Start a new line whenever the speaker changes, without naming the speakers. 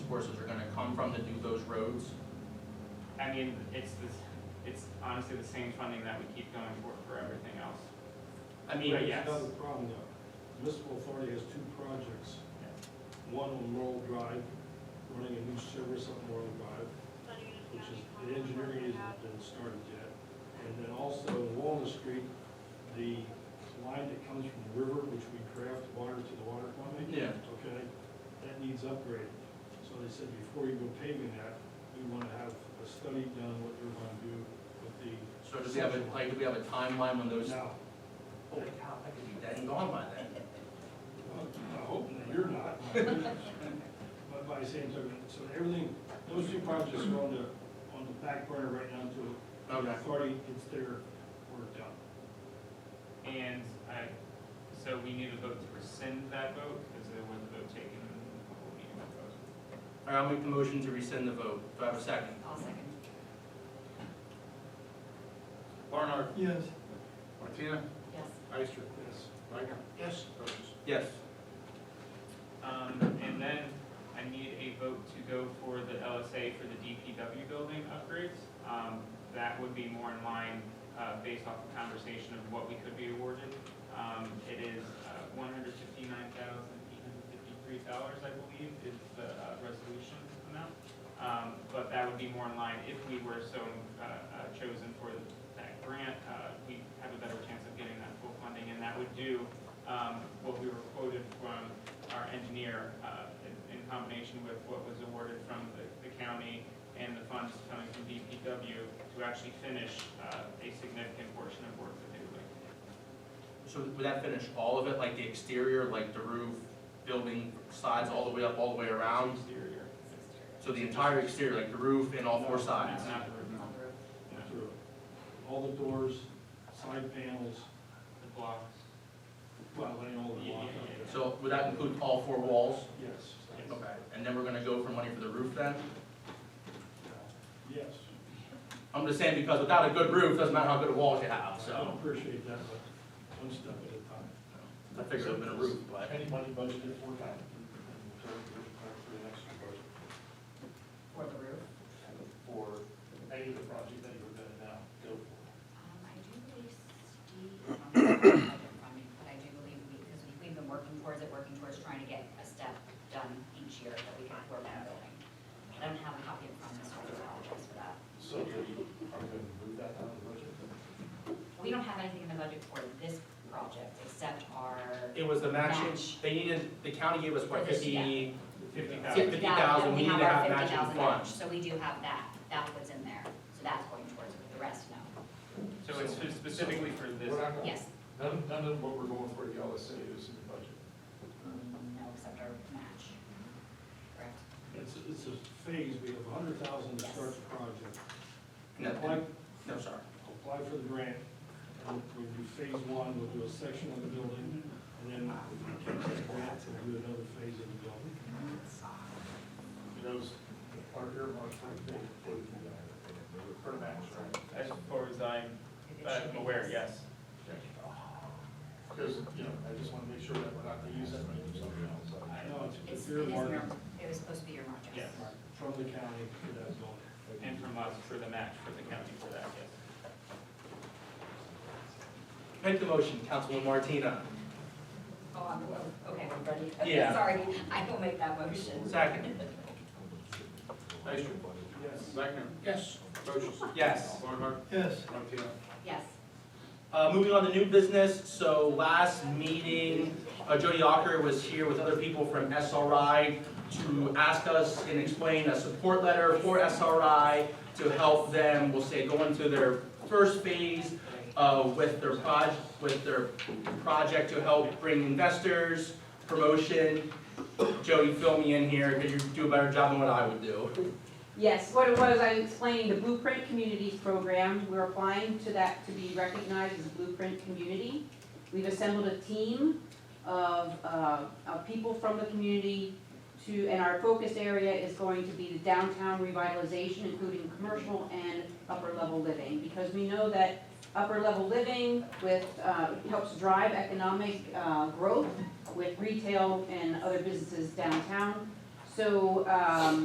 courses are gonna come from to do those roads?
I mean, it's this, it's honestly the same funding that we keep going for, for everything else.
I mean,
Right, yeah.
There's another problem though. Municipal authority has two projects. One on Laurel Drive, running a new service on Laurel Drive, which is, the engineering hasn't been started yet. And then also on Walnut Street, the line that comes from the river, which we craft water to the water company,
yeah,
okay? That needs upgraded. So they said before you go paving that, we want to have a study done, what you're going to do with the,
so do we have a, like, do we have a timeline when those,
now,
holy cow, I could be dead and gone by then.
Well, I hope you're not. But by the same token, so everything, those two projects are on the, on the back burner right now until the
Okay,
authority gets their work done.
And I, so we need a vote to rescind that vote, because there was a vote taken in the whole meeting.
all right, I'll make the motion to rescind the vote, do I have a second?
I'll second.
Barnard.
Yes.
Martina.
Yes.
Ister.
Yes.
Wagner. Yes. Folds.
Yes,
Um, and then I need a vote to go for the LSA for the DPW building upgrades. Um, that would be more in line, uh, based off the conversation of what we could be awarded. Um, it is, uh, one hundred fifty-nine thousand eight hundred fifty-three dollars, I believe, is the, uh, resolution amount. Um, but that would be more in line if we were so, uh, uh, chosen for that grant, uh, we have a better chance of getting that full funding, and that would do, um, what we were quoted from our engineer, uh, in in combination with what was awarded from the, the county and the funds coming from DPW to actually finish, uh, a significant portion of work that they were doing.
so would that finish all of it, like the exterior, like the roof, building sides, all the way up, all the way around?
Exterior.
So the entire exterior, like the roof and all four sides?
Not the roof,
On the roof.
Through. All the doors, side panels,
the blocks.
well, laying all the block up.
Yeah, yeah,
So would that include all four walls?
Yes.
Okay, and then we're gonna go for money for the roof then?
Yes.
I'm just saying because without a good roof, doesn't matter how good a walls you have,
I don't
so.
appreciate that, but one step at a time.
I figured it would have been a roof, but.
Anybody budgeted for that? For the next year budget,
For the roof.
for any of the projects that you're gonna now go for?
Um, I do believe Steve, I don't have the budget from me, but I do believe we, because we've been working towards it, working towards trying to get a step done each year that we can afford that building. I don't have a copy in front of me, so I do apologize for that.
So are you, are you gonna move that out of the budget?
We don't have anything in the budget for this project except our,
It was the matching,
Match.
they needed, the county gave us what,
For this,
fifty?
Fifty
Yeah, 50,000,
thousand.
Yeah,
we need to
our
have matching
50,000
funds.
match, So we do have that, that's what's in there, so that's going towards it, the rest, no.
So it's spe- specifically for this,
We're not gonna-
Yes,
None, none of what we're going for the LSA is in the budget.
no, except our match, correct?
It's, it's a phase, we have a hundred thousand to start the project.
No,
Apply
no, sorry.
apply for the grant, and we'll do phase one, we'll do a section of the building, and then we'll take that grant and do another phase of the building.
You know, those are earmarked for the, for the, for the match, right?
as far as I'm
Uh,
I'm aware, yes.
Because, you know, I just wanna make sure that we're not gonna use that money for something else.
I know it's
It's,
a
it
fair
is,
market
earmarked. it was supposed to be earmarked, yes.
Yes.
from the county for that building.
And from us for the match, for the county for that, yes.
Make the motion, Councilman Martina.
Oh, I'm, oh, okay, I'm ready.
Yeah.
Sorry, I will make that motion.
Second.
Ister.
Yes.
Wagner.
Yes.
Folds.
Yes.
Barnard.
Yes.
Martina.
Yes,
Uh, moving on to new business, so last meeting, uh, Jody Ocker was here with other people from SRI to ask us and explain a support letter for SRI to help them, we'll say, go into their first phase, uh, with their proj, with their project to help bring investors, promotion. Jody, fill me in here, could you do a better job than what I would do?
Yes, what it was, I explained the Blueprint Communities Program. We're applying to that to be recognized as Blueprint Community. We've assembled a team of, uh, of people from the community to, and our focus area is going to be the downtown revitalization, including commercial and upper-level living. Because we know that upper-level living with, uh, helps drive economic, uh, growth with retail and other businesses downtown. So, um,